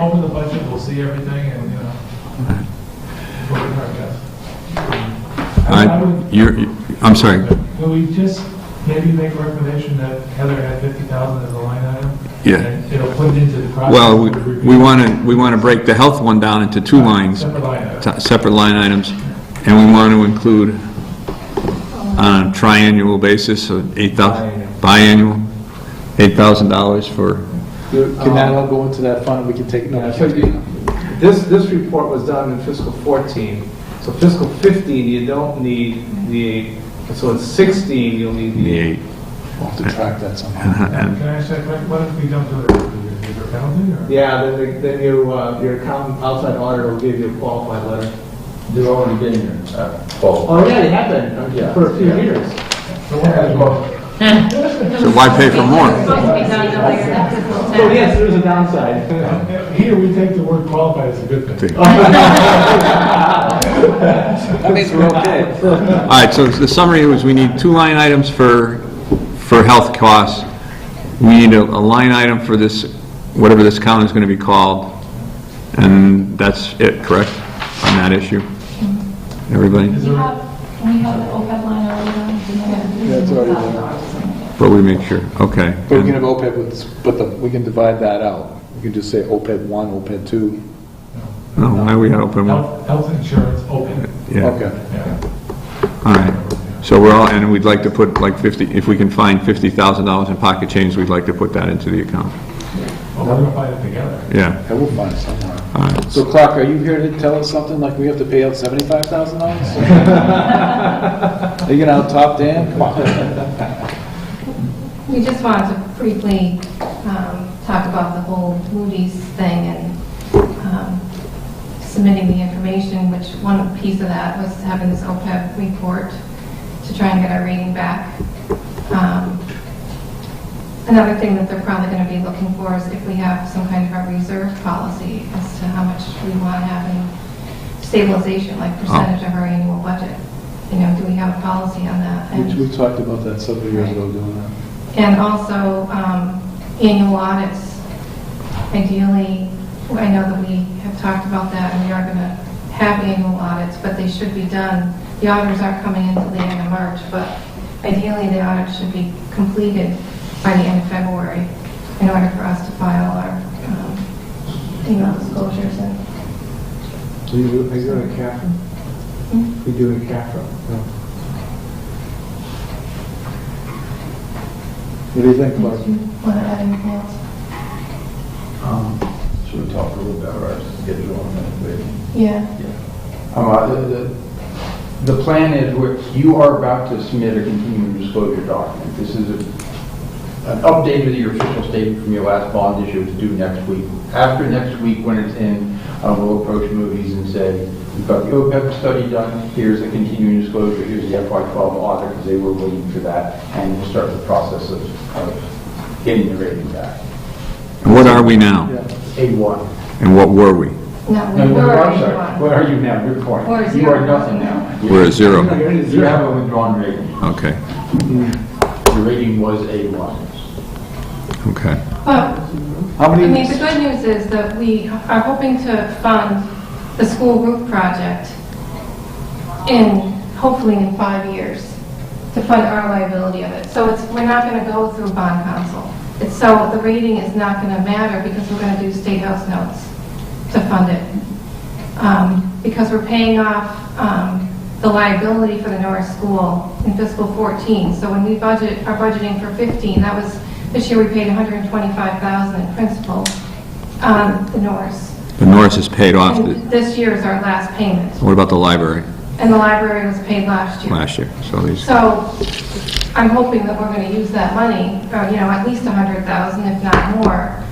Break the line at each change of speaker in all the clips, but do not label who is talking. Over the budget, we'll see everything and, you know, we'll do our best. I- I
I,
would-
you're, you- I'm sorry.
Will we just maybe make a recommendation that Heather had 50,000 as a line item?
Yeah.
And it'll put it into the process.
Well, we-
of
we
review.
want to, we want to break the health one down into two lines,
Separate line item.
t- separate line items, and we want to include on a triannual basis, so eight thousand, biannual, $8,000 for,
Can
Um,
that all go into that fund, we can take it
Yeah, so you- This, this report was done in fiscal 14, so fiscal 15, you don't need the eight, so in 16, you'll need
the
the eight.
eight.
We'll have to track that somehow.
Can
And-
I ask that, question? what if we don't do it? Is there a penalty or?
Yeah, then, the- then you, uh, your accountant, outside auditor will give you a qualified letter.
They've already been here, uh, both.
Oh, yeah, they have been, uh,
Yeah.
for a few years.
So what happens
So why pay for more?
Supposed to be done earlier, that's the whole
So
time.
yes, there is a downside.
if- Here, we take the word qualified as a good thing.
That means we're okay.
All right, so the summary was we need two line items for, for health costs. We need a, a line item for this, whatever this account is going to be called, and that's it, correct, on that issue? Everybody,
Is
We
there,
have, we have the OPEB line already.
Yeah, it's already there.
but we make sure, okay.
But we can have OPEB, with- but the, we can divide that out. We can just say OPEB one, OPEB two.
No, why Oh, we had open one?
health, health insurance open?
Yeah,
Okay.
Yeah.
all right. So we're all, and we'd like to put like 50, if we can find $50,000 in pocket change, we'd like to put that into the account.
Well, we're gonna find it together.
Yeah,
I will find it somewhere.
all right.
So Clark, are you here to tell us something, like we have to pay out seventy-five thousand dollars? Are you gonna out-top Dan? Come on.
We just wanted to briefly um, talk about the whole Moody's thing and um, submitting the information, which one piece of that was having this OPEB report to try and get our rating back. Um, Another thing that they're probably going to be looking for is if we have some kind of a reserve policy as to how much we want to have in stabilization, like percentage of our annual budget. You know, do we have a policy on that? And-
We we talked about that several years ago, doing that.
and also um, annual audits. Ideally, I know that we have talked about that, and we are going to have annual audits, but they should be done. The auditors aren't coming until the end of March, but ideally, the audit should be completed by the end of February in order for us to file our, um, you know, disclosures and
Are you doing a CAFRA?
Hmm?
You doing a CAFRA? No.
What do you think, Clark?
if you want to add anything else.
Um, Should we talk a little bit about our schedule on that, please?
Yeah.
Uh, the- the- The plan is, we're- you are about to submit a continuing disclosure document. This is a- an update of your official statement from your last bond issue, it's due next week. After next week, when it's in, uh, we'll approach movies and say, we've got the OPEB study done, here's the continuing disclosure, here's the FY12 audit, because they were waiting for that, and we'll start the process of of getting the rating back.
And What are we now?
A1.
And what were we?
No,
No,
we
no,
were
I'm
already
sorry.
on.
What are you now? Good point.
Or
You
zero.
are nothing now.
We're a zero.
You have a withdrawn rating.
Okay,
Your rating was A1.
okay.
But
How
I mean, the
many,
good news is that we are hoping to fund the school roof project in, hopefully in five years, to fund our liability of it. So it's, we're not going to go through bond council. It's so, the rating is not going to matter because we're going to do state house notes to fund it. Um, Because we're paying off um, the liability for the Norris School in fiscal 14. So when we budget, are budgeting for 15, that was, this year we paid 125,000 in principal on the Norris.
The Norris is paid off.
And this year is our last payment.
What about the library
And the library was paid last year.
last year? So these,
So I'm hoping that we're going to use that money, or, you know, at least 100,000, if not more,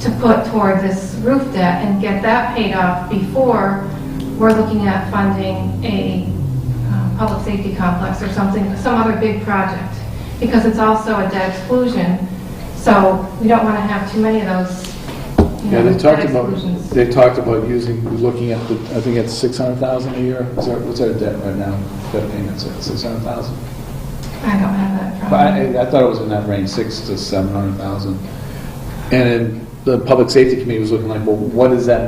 to put toward this roof debt and get that paid off before we're looking at funding a uh, public safety complex or something, some other big project. Because it's also a debt exclusion, so we don't want to have too many of those, you
yeah,
know,
they
debt
talked about,
exclusions.
they talked about using, looking at the, I think it's six hundred thousand a year. Is that, what's our debt right now? Debt payments at six hundred thousand?
I don't have that
But I,
problem.
I thought it was in that range, six to seven hundred thousand. And the Public Safety Committee was looking like, well, what does that